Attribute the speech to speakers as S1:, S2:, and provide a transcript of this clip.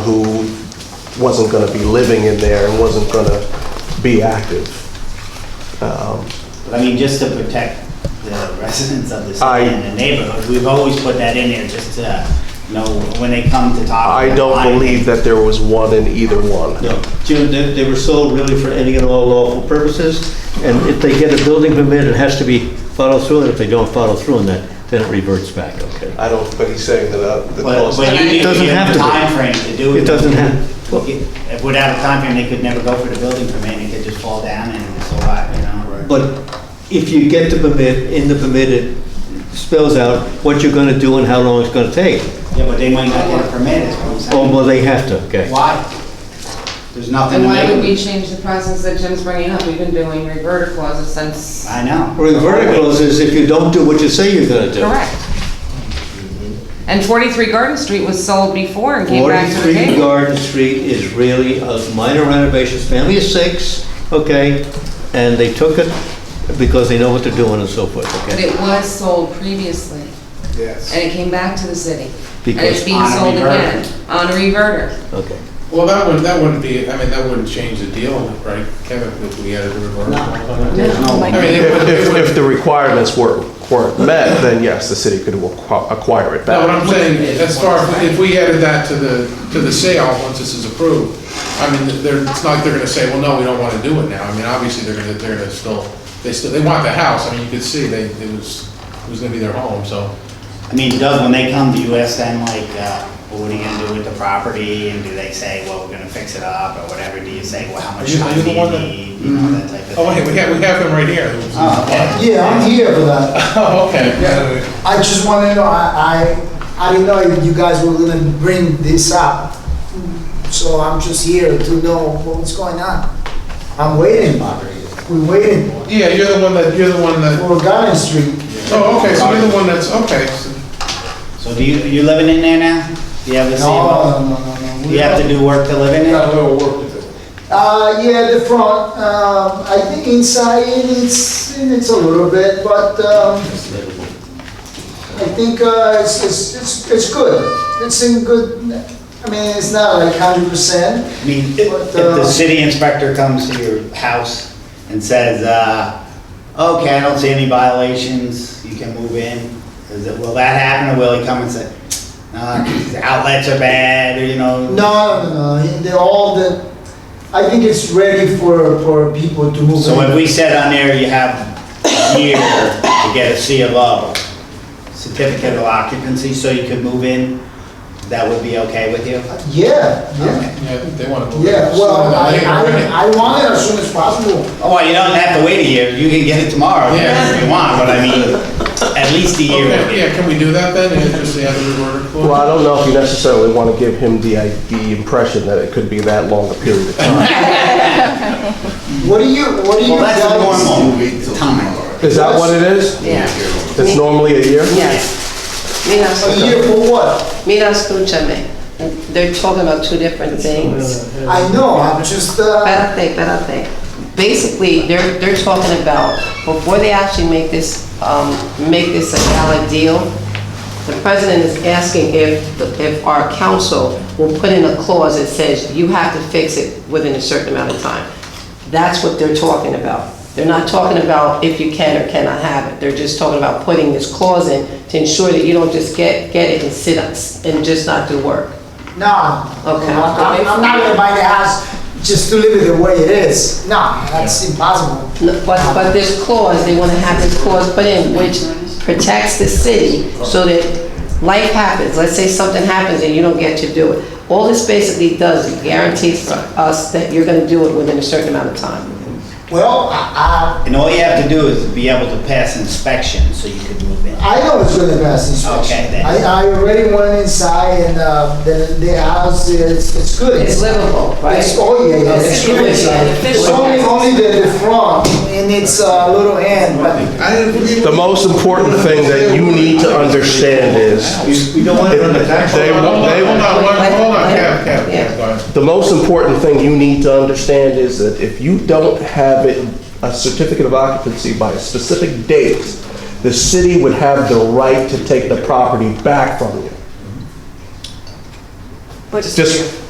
S1: who wasn't going to be living in there and wasn't going to be active. Um,
S2: I mean, just to protect the residents of the
S1: I-
S2: city and the neighborhood, we've always put that in there just to, you know, when they come to talk.
S1: I don't believe that there was one in either one.
S3: No, Jim, they, they were sold really for any and all lawful purposes, and if they get a building permit, it has to be followed through, and if they don't follow through on that, then it reverts back, okay?
S1: I don't, but he's saying that, uh, that
S2: But
S1: those-
S2: but you need to
S3: doesn't
S2: give them
S3: have to be.
S2: a timeframe to do it.
S3: It doesn't have-
S2: Well, If without a timeframe, they could never go for the building permit, it could just fall down and it's a lot, you know?
S3: But if you get the permit, in the permit, it spells out what you're gonna do and how long it's gonna take.
S2: Yeah, but they might not get a permit, is what I'm
S3: Oh,
S2: saying.
S3: well, they have to, okay?
S2: Why? There's nothing
S4: Then
S2: to
S4: why would we
S2: make.
S4: change the process that Jim's bringing up? We've been doing reverter clauses since,
S2: I know.
S3: Reverter clauses if you don't do what you say you're gonna do.
S4: correct. And 43 Garden Street was sold before and came back to the
S3: 43
S4: table.
S3: Garden Street is really a minor renovation, family of six, okay? And they took it because they know what they're doing and so forth,
S4: But
S3: okay?
S4: it was sold previously. Yes. And it came back to the city. And
S3: Because-
S4: it's being
S2: On a
S4: sold
S2: reverter.
S4: again, on a reverter.
S3: Okay.
S5: Well, that wouldn't, that wouldn't be, I mean, that wouldn't change the deal, right, Kevin, if we added a reverter?
S2: No.
S5: I mean, it
S1: If,
S5: would- it
S1: if,
S5: would-
S1: if the requirements were, weren't met, then yes, the city could acqu- acquire it
S5: No, what
S1: back.
S5: I'm saying, as far, if we added that to the, to the sale, once this is approved, I mean, they're, it's not like they're gonna say, well, no, we don't wanna do it now. I mean, obviously, they're gonna, they're gonna still, they still, they want the house, I mean, you could see, they, it was, it was gonna be their home, so.
S2: I mean, does, when they come to you, ask them like, uh, well, what are you gonna do with the property? And do they say, well, we're gonna fix it up or whatever? Do you say, well, how
S5: Are
S2: much
S5: you- are
S2: time
S5: you
S2: do
S5: the
S2: you
S5: one that-
S2: need? You know, that type of
S5: Oh, wait,
S2: thing.
S5: we have, we have him right here.
S6: Ah,
S2: Oh, okay.
S6: Yeah, I'm here for that.
S5: Oh, okay, yeah.
S6: I just want to know, I, I, I didn't know you guys were gonna bring this up. So I'm just here to know what's going on. I'm waiting. We're waiting
S5: Yeah, you're the one that, you're the one that,
S6: for Garden Street.
S5: oh, okay, so you're the one that's, okay. so-
S2: So do you, you living in there now? Do you have a
S6: No,
S5: uh,
S2: CMO?
S6: no, no, no, no.
S2: Do you have to do work to live in
S5: Got
S2: it?
S5: a little work to do.
S6: Uh, yeah, the front, um, I think inside it's, it's a little bit, but, um, I think, uh, it's, it's, it's, it's good. It's in good, I mean, it's not like hundred percent.
S2: I mean, if if
S5: uh,
S2: the city inspector comes to your house and says, uh, okay, I don't see any violations, you can move in, is it, will that happen or will he come and say, uh, these outlets are bad, or you know?
S6: No, no, no, they're all the, I think it's ready for, for people to move.
S2: So
S6: in.
S2: if we said on there, you have a year to get a C of O, certificate of occupancy, so you could move in, that would be okay with you?
S6: Yeah, yeah,
S2: Okay.
S5: Yeah, they want to.
S6: yeah, well, I, I, I want it as soon as possible.
S2: Oh, well, you don't have to wait a year, you can get it tomorrow, if you want, but I mean, at least a year would be.
S5: Yeah, can we do that then, and just the other reverter? clause?
S1: Well, I don't know if you necessarily want to give him the, uh, the impression that it could be that long a period of time.
S6: What do you, what do you
S2: Well, that's the
S6: guys?
S2: normal time.
S1: Is that what it is?
S7: Yeah,
S1: It's normally a year?
S7: yes.
S6: A year
S7: Mira,
S6: for what?
S7: mira, escúchame. They're talking about two different things.
S6: I know, I'm just, uh,
S7: Espérate, espérate. Basically, they're, they're talking about, before they actually make this, um, make this a valid deal, the president is asking if, if our council will put in a clause that says you have to fix it within a certain amount of time. That's what they're talking about. They're not talking about if you can or cannot have it. They're just talking about putting this clause in to ensure that you don't just get, get it and sit us and just not do work.
S6: nah.
S7: Okay.
S6: I- I'm, I'm not gonna buy the house just to leave it the way it is. Nah, that's impossible.
S7: But, but this clause, they want to have this clause put in, which protects the city so that life happens, let's say something happens and you don't get to do it. All this basically does, it guarantees us that you're going to do it within a certain amount of time.
S6: Well, I,
S2: And all you have to do is be able to pass inspection, so you could move in.
S6: I know it's gonna pass inspection.
S2: Okay, then.
S6: I, I already went inside and, uh, the, the house is, it's good.
S7: It's livable, right?
S6: It's, oh, yeah, yeah, it's
S7: Okay.
S6: good inside. It's only, only the, the front, and it's a little end, but
S1: The most important thing that you need to understand is,
S3: We don't want it on the tax.
S1: They-
S5: Hold on,
S1: they-
S5: hold on, one- hold on, Kev, Kev,
S7: Yeah.
S5: Kev, go ahead.
S1: the most important thing you need to understand is that if you don't have it, a certificate of occupancy by a specific date, the city would have the right to take the property back from you.
S8: But
S1: Just,